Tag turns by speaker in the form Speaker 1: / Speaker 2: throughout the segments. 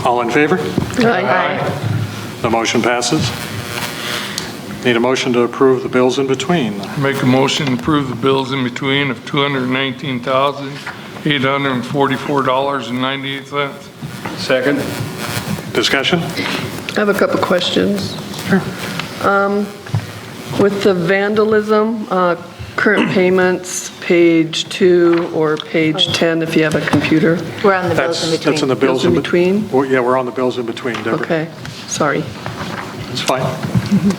Speaker 1: All in favor? The motion passes. Need a motion to approve the bills in between.
Speaker 2: Make a motion to approve the bills in between of $219,844.98.
Speaker 3: Second?
Speaker 1: Discussion?
Speaker 4: I have a couple questions. Um, With the vandalism, uh, current payments, page two or page 10, if you have a computer,
Speaker 5: We're on the bills in
Speaker 1: That's,
Speaker 5: between.
Speaker 1: that's in the bills.
Speaker 4: Bills in
Speaker 1: bet-
Speaker 4: between?
Speaker 1: Well, Yeah, we're on the bills in between, Deborah.
Speaker 4: okay, sorry.
Speaker 1: It's fine.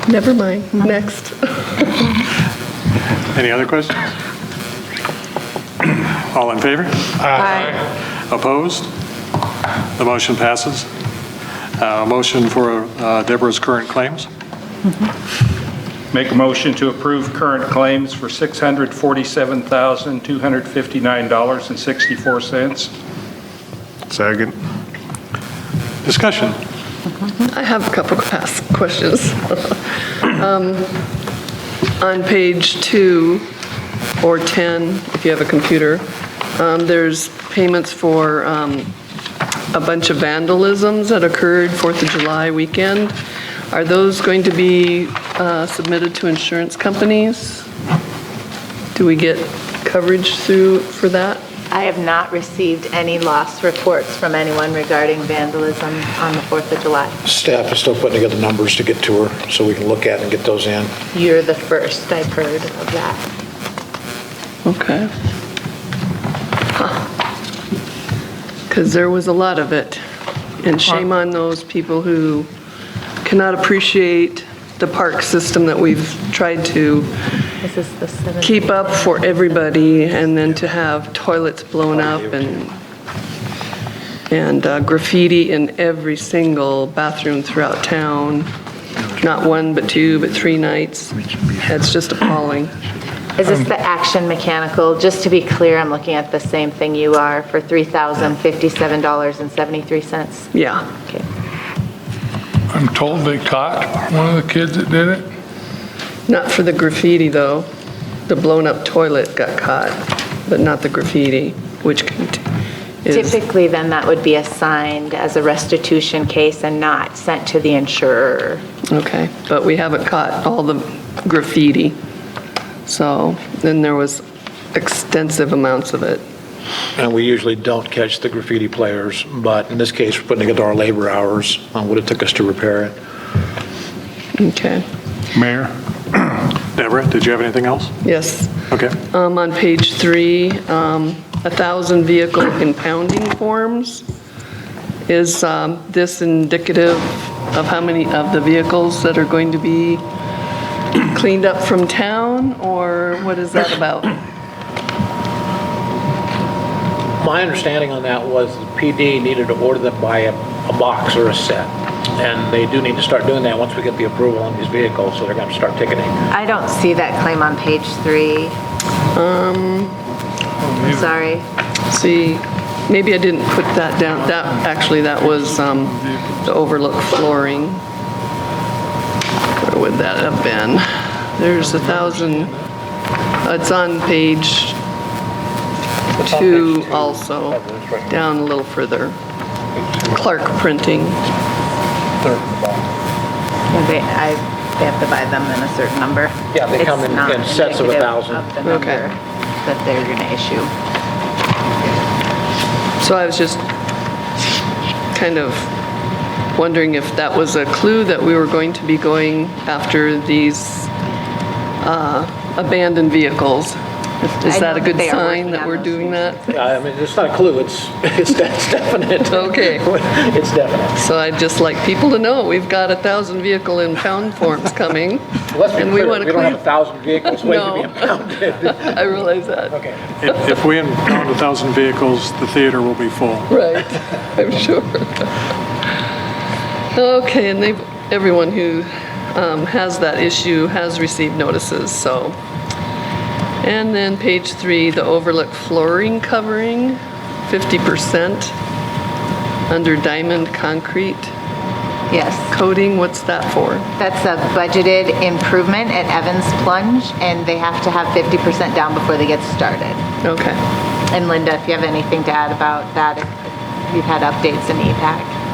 Speaker 4: Never mind, next.
Speaker 1: Any other questions? All in favor?
Speaker 5: Aye.
Speaker 1: Opposed? The motion passes. Uh, Motion for uh, Deborah's current claims.
Speaker 3: Make a motion to approve current claims for $647,259.64.
Speaker 6: Second.
Speaker 1: Discussion?
Speaker 4: I have a couple of past questions. Um, On page two or 10, if you have a computer, um, there's payments for um, a bunch of vandalisms that occurred 4th of July weekend. Are those going to be uh, submitted to insurance companies? Do we get coverage through, for that?
Speaker 5: I have not received any loss reports from anyone regarding vandalism on the 4th of July.
Speaker 7: Staff is still putting together numbers to get to her, so we can look at and get those in.
Speaker 5: You're the first I've heard of that.
Speaker 4: Okay. Because there was a lot of it. And shame on those people who cannot appreciate the park system that we've tried to
Speaker 5: This is the 7th.
Speaker 4: keep up for everybody, and then to have toilets blown up and, and uh, graffiti in every single bathroom throughout town. Not one, but two, but three nights. That's just appalling.
Speaker 5: Is this the Action Mechanical? Just to be clear, I'm looking at the same thing you are for $3,057.73.
Speaker 4: Yeah.
Speaker 5: Okay.
Speaker 2: I'm told they caught one of the kids that did it.
Speaker 4: Not for the graffiti, though. The blown-up toilet got caught, but not the graffiti, which cont- is,
Speaker 5: Typically, then, that would be assigned as a restitution case and not sent to the insurer.
Speaker 4: okay. But we haven't caught all the graffiti. So then there was extensive amounts of it.
Speaker 7: And we usually don't catch the graffiti players, but in this case, we're putting together our labor hours on what it took us to repair it.
Speaker 4: Okay.
Speaker 6: Mayor?
Speaker 1: Deborah, did you have anything else?
Speaker 4: Yes.
Speaker 1: Okay.
Speaker 4: Um, On page three, um, 1,000 vehicle impounding forms. Is um, this indicative of how many of the vehicles that are going to be cleaned up from town, or what is that about?
Speaker 7: My understanding on that was the PD needed to order them by a a box or a set, and they do need to start doing that once we get the approval on these vehicles, so they're going to start ticketing.
Speaker 5: I don't see that claim on page three. Um. Sorry.
Speaker 4: See, maybe I didn't put that down, that, actually, that was um, the overlook flooring. Where would that have been? There's a 1,000, it's on page two also, down a little further. Clark Printing,
Speaker 5: Yeah, They, I, they have to buy them in a certain number.
Speaker 7: Yeah, they come in-
Speaker 5: It's not
Speaker 7: in sets of a
Speaker 5: indicative
Speaker 7: thousand.
Speaker 5: of the
Speaker 4: Okay.
Speaker 5: number That they're gonna issue.
Speaker 4: so I was just kind of wondering if that was a clue that we were going to be going after these uh, abandoned vehicles. Is
Speaker 5: I
Speaker 4: that a
Speaker 5: know
Speaker 4: good
Speaker 5: they are
Speaker 4: sign
Speaker 5: working
Speaker 4: that
Speaker 5: on
Speaker 4: we're
Speaker 5: those
Speaker 4: doing that?
Speaker 7: Yeah, I mean, it's not a clue, it's, it's de- it's definite.
Speaker 4: Okay.
Speaker 7: It's definite.
Speaker 4: So I'd just like people to know, we've got a 1,000 vehicle impound forms coming.
Speaker 7: Let's be
Speaker 4: and we
Speaker 7: clear,
Speaker 4: want
Speaker 7: we
Speaker 4: to
Speaker 7: don't have a
Speaker 4: clean.
Speaker 7: thousand vehicles waiting to
Speaker 4: No.
Speaker 7: be impounded.
Speaker 4: I realize that.
Speaker 7: Okay.
Speaker 1: If if we impound 1,000 vehicles, the theater will be full.
Speaker 4: Right, I'm sure. Okay, and they've, everyone who um, has that issue has received notices, so. And then page three, the overlook flooring covering, 50% under diamond concrete
Speaker 5: Yes.
Speaker 4: coating, what's that for?
Speaker 5: That's a budgeted improvement at Evans Plunge, and they have to have 50% down before they get started.
Speaker 4: Okay.
Speaker 5: And Linda, if you have anything to add about that, if you've had updates in E EPAC.